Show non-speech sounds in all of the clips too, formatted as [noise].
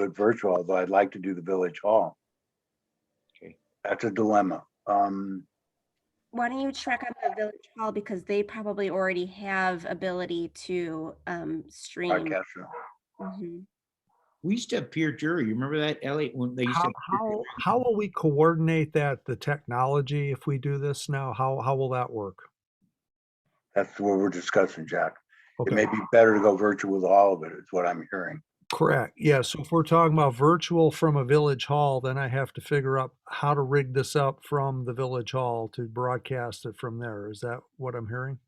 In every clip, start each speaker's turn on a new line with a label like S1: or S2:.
S1: it virtual, although I'd like to do the village hall.
S2: Okay.
S1: That's a dilemma. Um,
S3: Why don't you check on the village hall because they probably already have ability to um
S2: Mm.
S3: stream.
S1: podcast.
S3: Mhm.
S2: We used to have peer jury. You remember that, Elliot? When they used to
S4: How,
S2: have peer
S4: how,
S2: jury?
S4: how will we coordinate that, the technology, if we do this now? How, how will that work?
S1: That's what we're discussing, Jack. It may
S4: Okay,
S1: be better to go virtual with all of it, is what I'm hearing.
S4: correct. Yeah, so if we're talking about virtual from a village hall, then I have to figure out how to rig this up from the village hall to broadcast it from there. Is that what I'm hearing?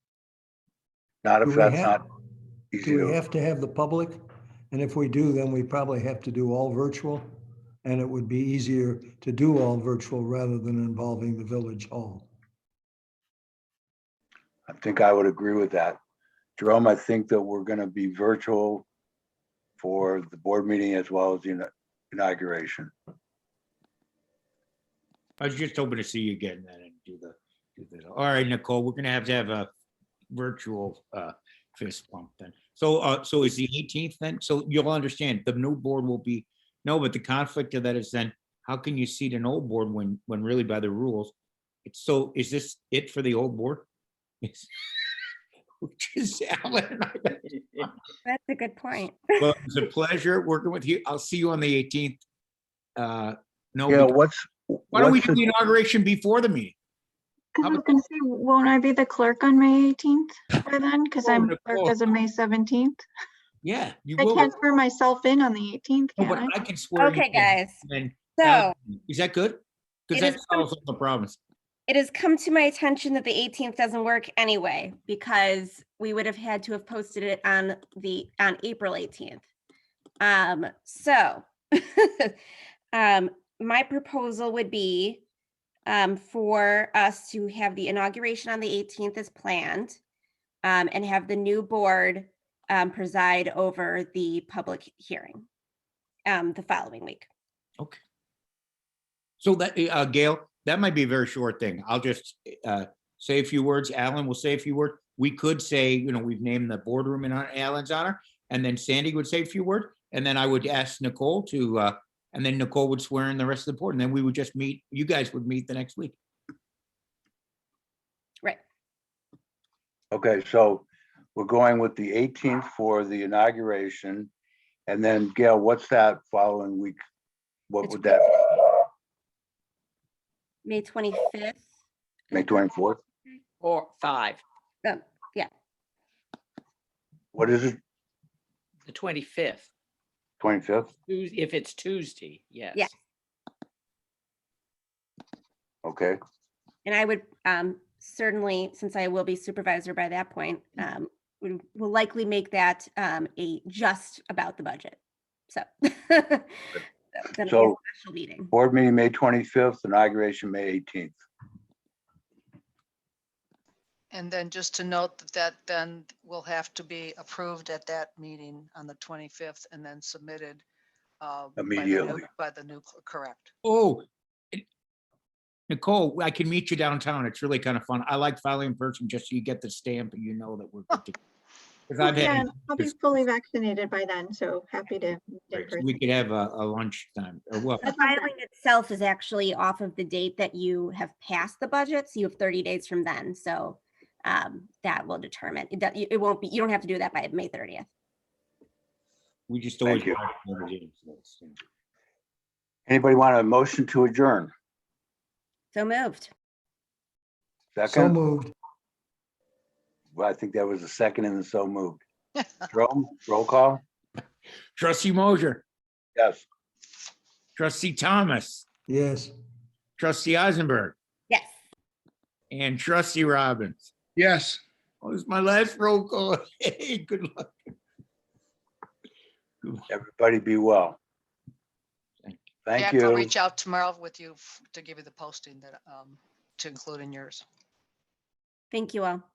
S1: Not
S5: Do
S1: if
S5: we
S1: that's
S5: have-
S1: not easy
S5: Do we
S1: to,
S5: have to have the public? And if we do, then we probably have to do all virtual. And it would be easier to do all virtual rather than involving the village hall.
S1: I think I would agree with that. Jerome, I think that we're gonna be virtual for the board meeting as well as the ina- inauguration.
S2: I was just hoping to see you again then and do the, do the, all right, Nicole, we're gonna have to have a virtual uh fist bump then. So, uh, so is the eighteenth then? So you'll understand, the new board will be, no, but the conflict of that is then, how can you seat an old board when, when really by the rules? It's so, is this it for the old board? [laughs] Yes. Which is Alan and I.
S3: That's a good point.
S2: Well, it's a pleasure working with you. I'll see you on the eighteenth. Uh, no,
S1: Yeah,
S2: we-
S1: what's,
S2: why don't we
S1: what's
S2: do
S1: the-
S2: the inauguration before the meeting?
S6: Because
S2: How
S6: I was
S2: about-
S6: gonna say, won't I be the clerk on May eighteenth by then? Because
S2: Oh,
S6: I'm
S2: Nicole.
S6: clerk as of May seventeenth.
S2: Yeah, you
S6: I
S2: will.
S6: can't swear myself in on the eighteenth,
S2: No,
S6: can
S2: But
S6: I?
S2: I can swear. you
S3: Okay,
S2: in,
S3: guys.
S2: and
S3: So
S2: that- Is that good? Because
S3: It
S2: that
S3: is good.
S2: solves all the problems.
S3: it has come to my attention that the 18th doesn't work anyway because we would have had to have posted it on the on April 18th. Um, so [laughs] um, my proposal would be um, for us to have the inauguration on the 18th as planned um, and have the new board um, preside over the public hearing um, the following week.
S2: So that, uh, Gail, that might be a very short thing. I'll just, uh, say a few words. Alan will say a few words. We could say, you know, we've named the boardroom in our- Alan's honor, and then Sandy would say a few words, and then I would ask Nicole to, uh, and then Nicole would swear in the rest of the board, and then we would just meet, you guys would meet the next week.
S1: okay, so we're going with the eighteenth for the inauguration. And then Gail, what's that following week? What
S3: It's
S1: would that,
S3: May 25th.
S1: May twenty-fourth?
S7: Or five,
S3: Um,
S1: What is it,
S7: the twenty-fifth,
S1: twenty-fifth?
S7: if it's Tuesday, yes.
S1: Okay,
S3: And I would um, certainly, since I will be supervisor by that point, um, we will likely make that um, a just about the budget. So. [laughs] then it'll be a
S1: So-
S3: Special meeting.
S1: board meeting, May twenty-fifth, inauguration, May eighteenth.
S8: And then just to note that that then will have to be approved at that meeting on the 25th and then submitted. uh, by the new-
S1: Immediately.
S8: By the new, cl- correct.
S2: Oh. it- Nicole, I can meet you downtown. It's really kind of fun. I like filing in person just so you get the stamp and you know that we're. Because I've
S6: Yeah,
S2: had,
S6: I'll be
S2: this-
S6: fully vaccinated by then, so happy to. meet in person.
S2: we could have a, a lunch time or what?
S3: The filing itself is actually off of the date that you have passed the budget, so you have 30 days from then. So um, that will determine, it do- it won't be, you don't have to do that by May 30th.
S2: We just always.
S1: you.
S2: watch the other games, so it's, you know.
S1: Anybody want a motion to adjourn?
S3: So moved.
S5: So
S1: Second,
S5: moved.
S1: Well, I think that was a second and so moved.
S8: [laughs]
S1: Jerome, roll call?
S2: Trustee Mosier,
S1: Yes.
S2: trustee Thomas,
S5: Yes.
S2: trustee Eisenberg,
S3: Yes.
S2: and trustee Robbins.
S9: Yes.
S2: Oh, it's my last roll call. [laughs] Hey, good luck.
S1: Everybody be well.
S2: Thank
S1: Thank
S8: Jack, I'll
S1: you.
S8: reach out tomorrow with you f- to give you the posting that, um, to include in yours.
S3: Thank you all.